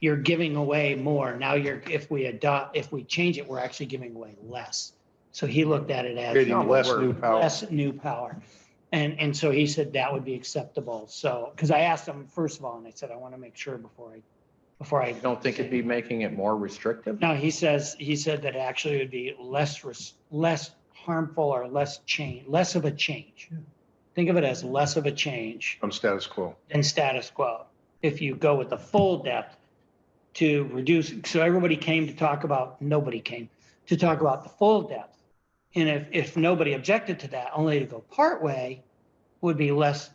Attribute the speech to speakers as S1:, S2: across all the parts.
S1: you're giving away more. Now you're, if we adopt, if we change it, we're actually giving away less. So he looked at it as
S2: Creating less new power.
S1: less new power. And, and so he said that would be acceptable. So, because I asked him first of all, and I said, I want to make sure before I, before I
S3: You don't think it'd be making it more restrictive?
S1: No, he says, he said that actually it would be less, res- less harmful or less change, less of a change. Think of it as less of a change
S2: From status quo.
S1: than status quo. If you go with the full depth to reduce, so everybody came to talk about, nobody came to talk about the full depth. And if, if nobody objected to that, only to go part way would be less,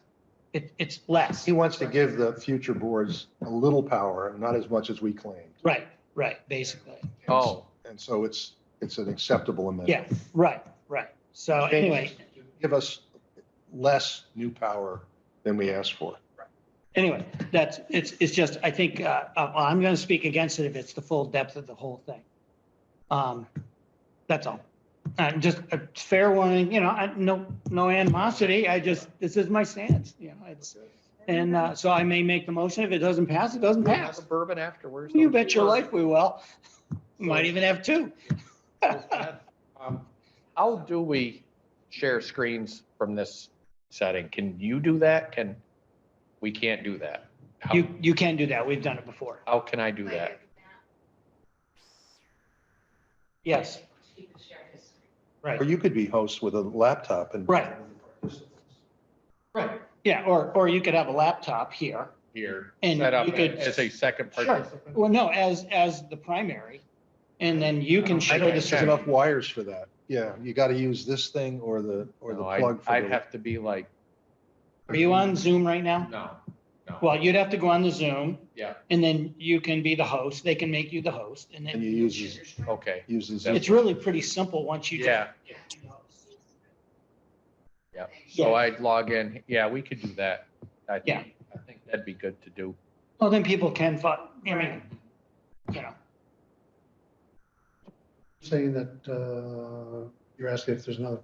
S1: it, it's less.
S2: He wants to give the future boards a little power, not as much as we claimed.
S1: Right, right, basically.
S3: Oh,
S2: And so it's, it's an acceptable amendment.
S1: Yeah, right, right. So anyway,
S2: Give us less new power than we asked for.
S1: anyway, that's, it's, it's just, I think, uh, uh, I'm going to speak against it if it's the full depth of the whole thing. Um, that's all. Uh, just a fair warning, you know, I, no, no animosity. I just, this is my stance, you know, it's, and, uh, so I may make the motion. If it doesn't pass, it doesn't
S3: have a
S1: pass.
S3: bourbon afterwards.
S1: You bet your life we will. Might even have two.
S3: Um, How do we share screens from this setting? Can you do that? Can, we can't do that. How-
S1: You, you can do that. We've done it before.
S3: How can I do that?
S1: Yes, right.
S2: Or you could be host with a laptop and.
S1: Right. Right. Yeah, or, or you could have a laptop here.
S3: Here,
S1: And
S3: set up
S1: you could-
S3: as a second
S1: Sure.
S3: participant.
S1: Well, no, as, as the primary. And then you can
S2: I
S1: share
S2: don't think
S1: this.
S2: there's enough wires for that. Yeah, you got to use this thing or the, or the
S3: No,
S2: plug.
S3: I'd,
S2: for
S3: I'd
S2: the-
S3: have to be like,
S1: Are you on Zoom right now?
S3: no, no.
S1: Well, you'd have to go on the Zoom
S3: Yeah,
S1: and then you can be the host. They can make you the host and
S2: And
S1: then
S2: you use, this-
S3: okay,
S2: use this.
S1: it's really pretty simple once you.
S3: Oh. yeah. So I'd log in, yeah, we could do that. I think-
S1: Yeah.
S3: I think that'd be good to do.
S1: Well, then people can, fi- I mean, you know,
S4: saying that uh, you're asking if there's another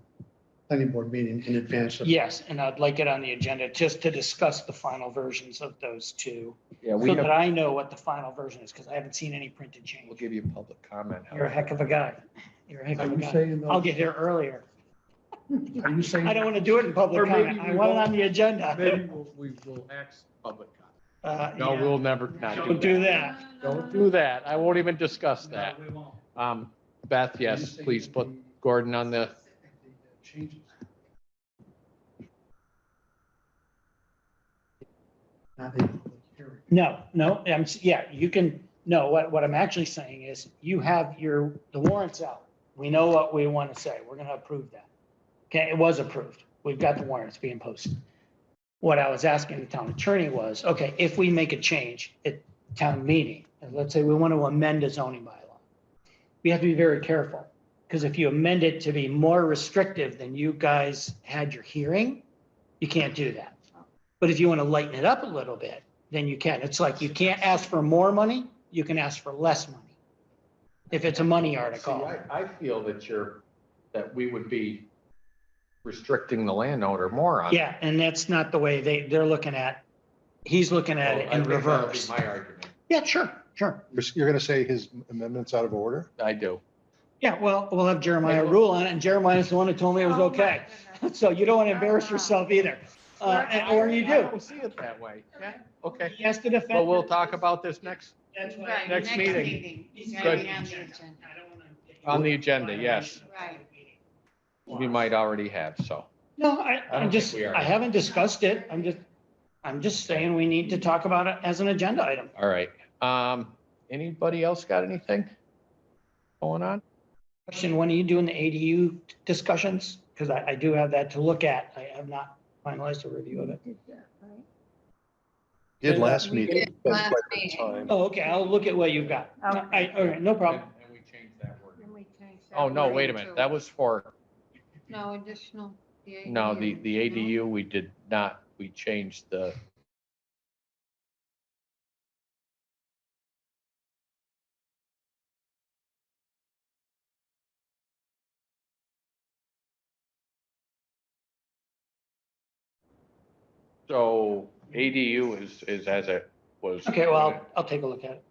S4: planning board meeting in advance of.
S1: yes, and I'd like it on the agenda just to discuss the final versions of those two.
S3: Yeah, we
S1: So
S3: have,
S1: that I know what the final version is because I haven't seen any printed
S3: we'll
S1: change.
S3: give you public comment.
S1: You're a heck of a guy. You're a heck
S4: Are
S1: of a
S4: you
S1: guy.
S4: saying,
S1: I'll
S4: though,
S1: get here earlier.
S4: are you saying?
S1: I don't want to do it in public
S5: Or maybe
S1: comment. I
S5: we
S1: want it
S5: won't.
S1: on the agenda.
S5: Maybe we'll- we will ask public comment.
S1: Uh,
S3: No,
S1: yeah.
S3: we'll never, not
S1: Don't
S3: do
S1: do
S3: that.
S1: that.
S3: Don't do that. I won't even discuss that.
S5: No, we won't.
S3: Um, Beth,
S4: are you
S3: yes,
S4: saying
S3: please
S4: that
S3: put
S4: the-
S3: Gordon on the,
S4: the Changes. Not a public hearing.
S1: No, no, I'm, s- yeah, you can, no, what, what I'm actually saying is you have your, the warrants out. We know what we want to say. We're going to approve that. Okay, it was approved. We've got the warrants being posted. What I was asking the town attorney was, okay, if we make a change at town meeting, and let's say we want to amend a zoning bylaw. We have to be very careful, because if you amend it to be more restrictive than you guys had your hearing, you can't do that. But if you want to lighten it up a little bit, then you can. It's like you can't ask for more money, you can ask for less money. If it's a money
S3: See,
S1: article.
S3: I, I feel that you're, that we would be restricting the landowner more on.
S1: Yeah, and that's not the way they, they're looking at, he's looking at
S3: I
S1: it in
S3: think that would be
S1: reverse.
S3: My argument.
S1: Yeah, sure, sure.
S2: You're, you're going to say his amendment's out of order?
S3: I do.
S1: Yeah, well, we'll have Jeremiah
S3: Like-
S1: rule on it, and Jeremiah's the one who told me it was
S6: Oh, my
S1: okay.
S6: goodness.
S1: So you don't want to embarrass yourself either, uh, and- or you do.
S3: I don't see it that way. Yeah, okay.
S1: He has to defend.
S3: Well, we'll
S1: it.
S3: talk about this next,
S1: That's why-
S6: Right,
S3: Next meeting.
S6: He's
S1: Good.
S6: gonna be on the agenda.
S1: I don't wanna get you-
S3: On the agenda, yes.
S6: Right.
S3: we might already have, so.
S1: No, I, I'm
S3: think
S1: just,
S3: we are.
S1: I haven't discussed it. I'm just, I'm just saying we need to talk about it as an agenda item.
S3: All right. Um, anybody else got anything going on?
S1: Question, when are you doing the ADU discussions? Because I, I do have that to look at. I have not finalized a review of it.
S2: Did last meeting.
S6: did
S2: spent quite
S6: last
S2: a bit of
S6: meeting.
S2: time.
S1: Oh, okay, I'll look at what you've got. I, all right, no problem.
S3: And we changed that word. Oh, no, wait a minute. That was for,
S6: No additional.
S3: no, the, the
S6: ADU.
S3: ADU, we did not, we changed the, so ADU is, is as it was.
S1: Okay, well, I'll, I'll take a look at it.